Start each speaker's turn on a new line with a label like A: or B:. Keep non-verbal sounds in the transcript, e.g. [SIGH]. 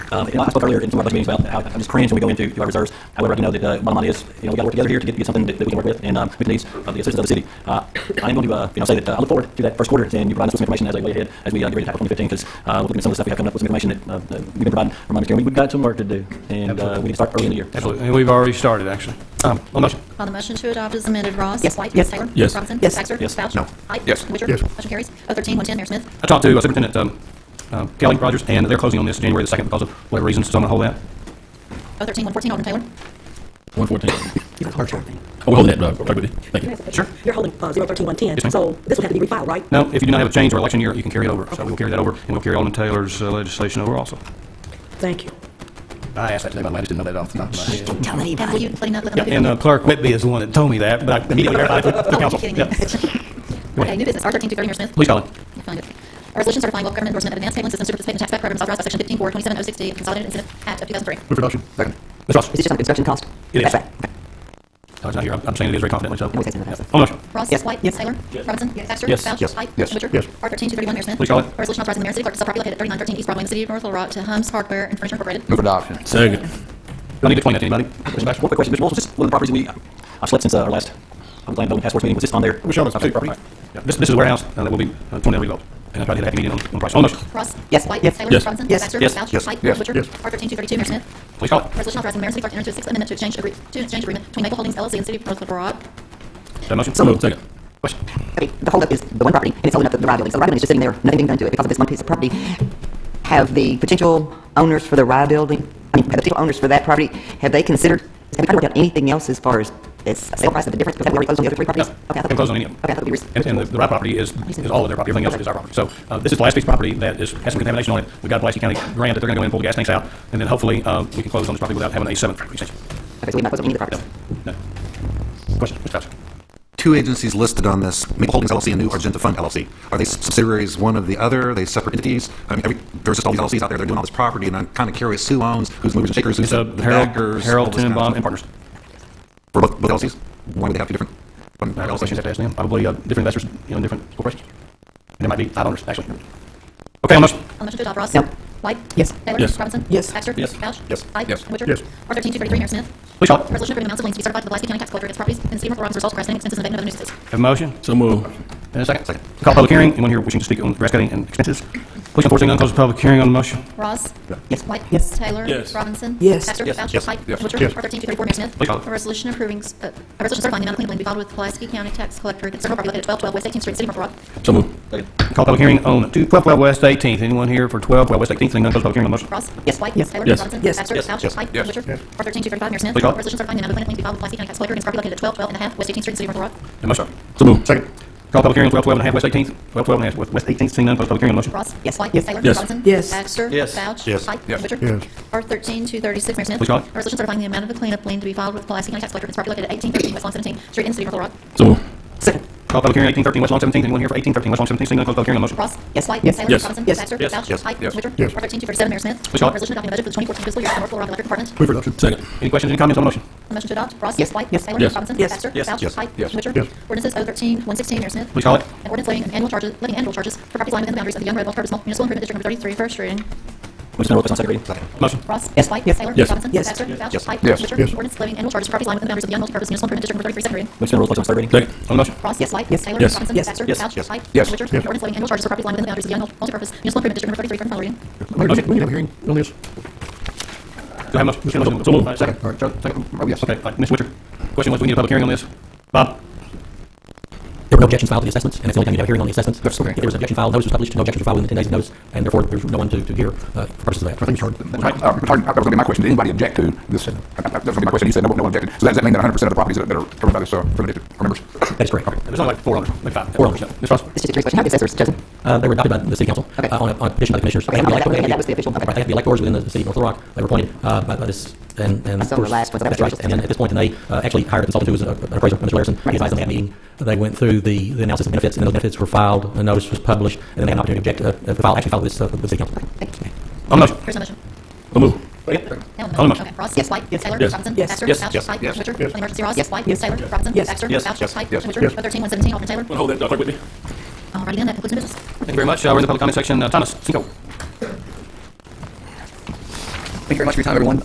A: Um, and I spoke earlier in some of our budget meetings about how I just cringe when we go into to our reserves. However, I do know that uh, bottom line is, you know, we got to work together here to get, get something that, that we can work with and um, meet the needs of the assistance of the city. Uh, I am going to, uh, you know, say that uh, I look forward to that first quarter and you provide us with some information as we way ahead as we uh, get ready to tackle 2015 because uh, we're looking at some of the stuff we have coming up with some information that, uh, that we've been providing from my understanding. We- We've got some work to do and uh, we need to start early in the year.
B: Absolutely, and we've already started, actually. Um, On the motion,
C: On the motion to adopt as amended, Ross?
D: Yes.
C: White?
D: Yes.
C: Taylor?
B: Yes.
C: Robinson?
D: Yes.
C: Baxter?
A: Yes.
C: Vouch?
E: No.
C: Height?
E: Yes.
C: Witcher?
E: Yes.
C: Motion carries. O thirteen one ten, Mayor Smith.
B: I talked to uh, Superintendent um, uh, Kelly Rogers, and they're closing on this January the 2nd because of whatever reasons, so I'm going to hold that.
C: O thirteen one fourteen, Alderman Taylor.
F: 114.
D: You're holding,
F: We'll hold that, uh, October. Thank you.
B: Sure.
D: you're holding uh, 013-110,
B: ma'am.
D: so this would have to be refiled, right?
B: No, if you do not have a change or election year, you can carry it over. So we'll carry that over, and we'll carry Alderman Taylor's uh, legislation over also.
D: Thank you.
B: I asked that today, but I just didn't know that off the top of my head.
D: Tell
C: And
D: anybody.
C: will you let him know? let
B: Yeah,
C: him know?
B: And uh, Clerk Whitby is the one that told me that, but I
D: [LAUGHS]
B: immediately verified it with the
C: Oh, you're
B: council.
C: kidding me.
B: Yeah.
C: Okay, new business, R thirteen two thirty, Mayor Smith.
B: Please call it.
C: You're feeling good. A resolution certifying local government endorsement of advanced tabling systems to participate in the tax back program is authorized by section fifteen four twenty-seven oh sixty of the Consolidated Incentive Act of two thousand three.
E: Move adoption. Second.
B: Ms. Ross.
D: Is this just on construction cost?
B: It is.
D: That's right. Okay.
B: No, it's not here. I'm I'm saying it is very confidently, so. Oh,
D: No, it isn't.
B: Yeah. On the motion,
C: Ross?
D: Yes.
C: White?
D: Yes.
C: Taylor? Robinson? Baxter?
A: Yes.
C: Vouch?
E: Yes.
C: Height?
E: Yes.
C: Witcher?
E: Yes.
C: R thirteen two thirty-one, Mayor Smith.
B: Please call it.
C: A resolution authorizing the mayor and city clerk to sell property located at thirty-nine thirteen East Broadway in the city of North Little Rock to Hums Hardware and Furniture Incorporated.
E: Move adoption.
F: Second.
B: do I need to explain that to anybody? Mr. Baxter?
A: One quick question, Mr. Wilson, was this one of the properties we, I've slept since uh, our last, I'm glad the past board meeting, was this on there?
E: It was shown as
A: Okay,
E: two.
A: property.
B: Yeah, This, this is a warehouse uh, that will be uh, torn down, rebuilt, and I tried to get a happy medium on on price. On the motion,
C: Ross?
D: Yes.
C: White?
D: Yes.
C: Taylor?
F: Yes.
C: Robinson?
D: Yes.
C: Baxter?
A: Yes.
C: Vouch?
E: Yes.
C: Height?
E: Yes.
C: Witcher?
E: Yes.
C: R thirteen two thirty-two, Mayor Smith.
B: please call it.
C: Resolution authorizing the mayor and city clerk to enter into a sixth amendment to exchange agree, to exchange agreement between Maple Holdings LLC and City of North Little Rock.
B: Is that a motion?
D: So moved.
F: Second.
B: Question?
D: Okay, the holdup is the one property, and it's holding up the the Rye building. So the Rye building is just sitting there, nothing being done to it because of this one piece of property. Have the potential owners for the Rye building, I mean, have the potential owners for that property, have they considered, have we tried to work out anything else as far as this sale price of the difference? Because haven't we already closed on the other three properties?
B: No.
D: Okay, I thought-
B: Haven't closed on any of them.
D: Okay, I thought we were.
B: And, and the, the right property is, is all of their property, everything else is our property. So, uh, this is the last piece of property that is, has some contamination on it. We got a Pulaski County grant that they're gonna go in and pull the gas tanks out, and then hopefully, uh, we can close on this property without having a seventh extension.
D: Okay, so we've not closed on any of the properties.
B: No. Question, Mr. Thompson?
E: Two agencies listed on this, Maple Holdings LLC and New Argenta Fund LLC. Are they subsidiaries one of the other? Are they separate entities? I mean, every, there's just all these LLCs out there, they're doing all this property, and I'm kind of curious who owns, who's movers and shakers, who's
B: It's uh,
E: the
B: Harold,
E: backers. all
B: Harold
E: this kind of
B: Tenenbaum and
E: stuff.
B: Partners.
E: For both, both LLCs? Why would they have two different? fund
B: I have questions have
E: LLCs?
B: to ask them, probably, uh, different investors, you know, different corporations. And there might be five owners, actually. Okay, on the motion,
C: On the motion to adopt, Ross?
D: No.
C: White?
D: Yes.
C: Taylor?
F: Yes.
C: Robinson?
D: Yes.
C: Baxter?
A: Yes.
C: Vouch?
E: Yes.
C: Height?
F: Yes.
C: Witcher?
E: Yes.
C: R thirteen two thirty-three, Mayor Smith.
B: please call. Have
C: Resolution approving amounts of liens to be certified to the Pulaski County Tax Collector against properties in the city of North Little Rock as a result of grassing extensions and abatement of other nuisances.
B: a motion?
F: So moved.
B: And a second? Second. Call public hearing, anyone here wishing to speak on grass cutting and expenses? Please, unfortunately, none, close the public hearing on the motion.
C: Ross?
D: Yes.
C: White?
D: Yes.
C: Taylor?
F: Yes.
C: Robinson?
D: Yes.
C: Baxter?
A: Yes.
C: Vouch?
E: Yes.
C: Height?
E: Yes.
C: Witcher?
E: Yes.
C: R thirteen two thirty-four, Mayor Smith.
B: Please call.
C: A resolution approving, s- uh, a resolution certifying the amount of clean lien to be filed with Pulaski County Tax Collector against several property located at twelve twelve West Eighteenth Street, City of North Little Rock.
F: So moved.
B: Call public hearing on 2 1212 West 18th. Anyone here for 1212 West 18th? Seeing none, close the public hearing on the motion.
C: Ross?
D: Yes.
C: White?
D: Yes.
C: Taylor?
F: Yes.
C: Robinson?
D: Yes.
C: Baxter?
A: Yes.
C: Vouch?
E: Yes.
C: Height?
E: Yes.
C: Witcher?
E: Yes.
C: R thirteen two thirty-five, Mayor Smith.
B: Please call.
C: Resolution certifying the amount of clean lien to be filed with Pulaski County Tax Collector against property located at twelve twelve and a half West Eighteenth Street, City of North Little Rock.
B: A motion.
F: So moved.
E: Second.
B: Call public hearing on 1212 and a half West 18th. 1212 and a half West- West 18th. Seeing none, close the public hearing on the motion.
C: Ross?
D: Yes.
C: White?
D: Yes.
C: Taylor?
F: Yes.
C: Robinson?
D: Yes.
C: Baxter?
A: Yes.
C: Vouch?
E: Yes.
C: Height?
E: Yes.
C: Witcher?
E: Yes.
C: R thirteen two thirty-six, Mayor Smith.
B: Please call.
C: A resolution certifying the amount of the cleanup lien to be filed with Pulaski County Tax Collector against property located at eighteen thirteen West Lawn Seventeen Street in the City of Little Rock.
F: So moved.
D: Second.
B: Call public hearing 1813 West Lawn 17th. Anyone here for 1813 West Lawn 17th? Seeing none, close the public hearing on the motion.
C: Ross?
D: Yes.
C: White?
D: Yes.
C: Taylor?
F: Yes.
C: Robinson?
D: Yes.
C: Baxter?
E: Yes.
C: Vouch?
E: Yes.
C: Height?
E: Yes.
C: Witcher?
E: Yes.
C: R thirteen two thirty-seven, Mayor Smith.
B: Please call.
C: A resolution adopting the budget for the twenty-fourteen fiscal year of the North Little Rock Electric Department.
E: Move adoption.
F: Second.
B: Any questions, any comments on the motion?
C: The motion to adopt, Ross?
D: Yes.
C: White?
D: Yes.
C: Taylor?
F: Yes.
C: Robinson?
D: Yes.
C: Baxter?
A: Yes.
C: Vouch?
E: Yes.
C: Height?
E: Yes.
C: Witcher?
E: Yes.
C: Ordinances O thirteen one sixteen, Mayor Smith.
B: Please call it.
C: An ordinance levying annual charges, levying annual charges for property lying within the boundaries of the Young Red Belt Purpose Municipal Improvement District Number Thirty-three, first reading.
A: We're just going to roll this on second reading.
E: Second.
B: Motion.
C: Ross?
D: Yes.
C: White?
D: Yes.
C: Taylor?
F: Yes.
C: Robinson?
D: Yes.
C: Baxter? Vouch?
E: Yes.
C: Height?
E: Yes.
C: Witcher?
E: Yes.
C: Ordinance levying annual charges for property lying within the boundaries of
A: We're
C: the Young Multipurpose Municipal Improvement District Number Thirty-three, second reading.
A: just going to roll this on third reading.
F: Second.
B: On the motion.
C: Ross? Yes. White?
D: Yes.
C: Taylor?
F: Yes.
C: Robinson?
D: Yes.
C: Baxter?
A: Yes.
C: Vouch?
A: Yes.
C: White?
E: Yes.
C: Witcher?
E: Yes.
C: Ordinance levying annual charges for property lying within the boundaries of the Young Multipurpose Municipal Improvement District Number Thirty-three, from final reading.
E: We need to have a hearing on this.
B: Do I have a motion? Motion.
F: So moved.
B: Uh, Second.
E: All right.
B: Second. Oh, yes. Okay, fine. Mr. Witcher. Question was, we need a public hearing on this. Bob?
G: There were no objections filed to the assessments, and that's the only time you have a hearing on the assessments. If there was an objection filed, notice was published, no objections were filed within 10 days of notice, and therefore there's no one to, to hear uh, for purposes of that.
H: Uh, uh, pardon, That was going to be my question. Did anybody object to this? Uh, uh, That was going to be my question. You said no, no one objected. So that- does that mean that 100% of the properties that that are covered by this, uh, for the district are members?
G: That is correct.
B: There's only like four owners, maybe five.
G: Four owners.
B: Ms. Ross?
D: It's just a curious question. How did the assessors chosen?
G: Uh, They were adopted by the city council uh,
D: Okay.
G: on a on a petition by the commissioners.
D: Okay, I'm glad- I'm glad that was the official. Okay.
G: Right, They have the electors within the city of North Little Rock. They were appointed uh, by by this, and. and
D: I saw the
G: of course-
D: last ones. That was
G: That's right.
D: just-
G: And then at this point, then they uh, actually hired a consultant who was a- an appraiser, Mr. Larson. He advised them at that meeting. They went through the the analysis of benefits, and those benefits were filed, a notice was published, and then they had an opportunity to object, uh, uh, file, actually file this uh, with the city council.
B: On the motion.
C: Here's my motion.
F: So moved.
C: Now
B: Hold on.
C: Okay, Ross? Yes. White? Taylor?
F: Yes.
C: Robinson?
D: Yes.
C: Baxter?
E: Yes.
C: Vouch?
E: Yes.
C: Height?
E: Yes.
C: Witcher?
E: Yes.
C: On emergency, Ross?
D: Yes.
C: White?
D: Yes.
C: Taylor? Robinson?
D: Yes.
C: Baxter?
A: Yes.
C: Vouch?
E: Yes.
C: Height?
E: Yes.
C: Witcher?
E: Yes.
C: O thirteen one seventeen, Alderman Taylor?
F: We'll hold that, uh, quickly.
C: Alrighty then, that concludes new business.
B: Thank you very much. Uh, We're in the public comment section. Uh, Thomas Cinco.
E: very much for your time, everyone.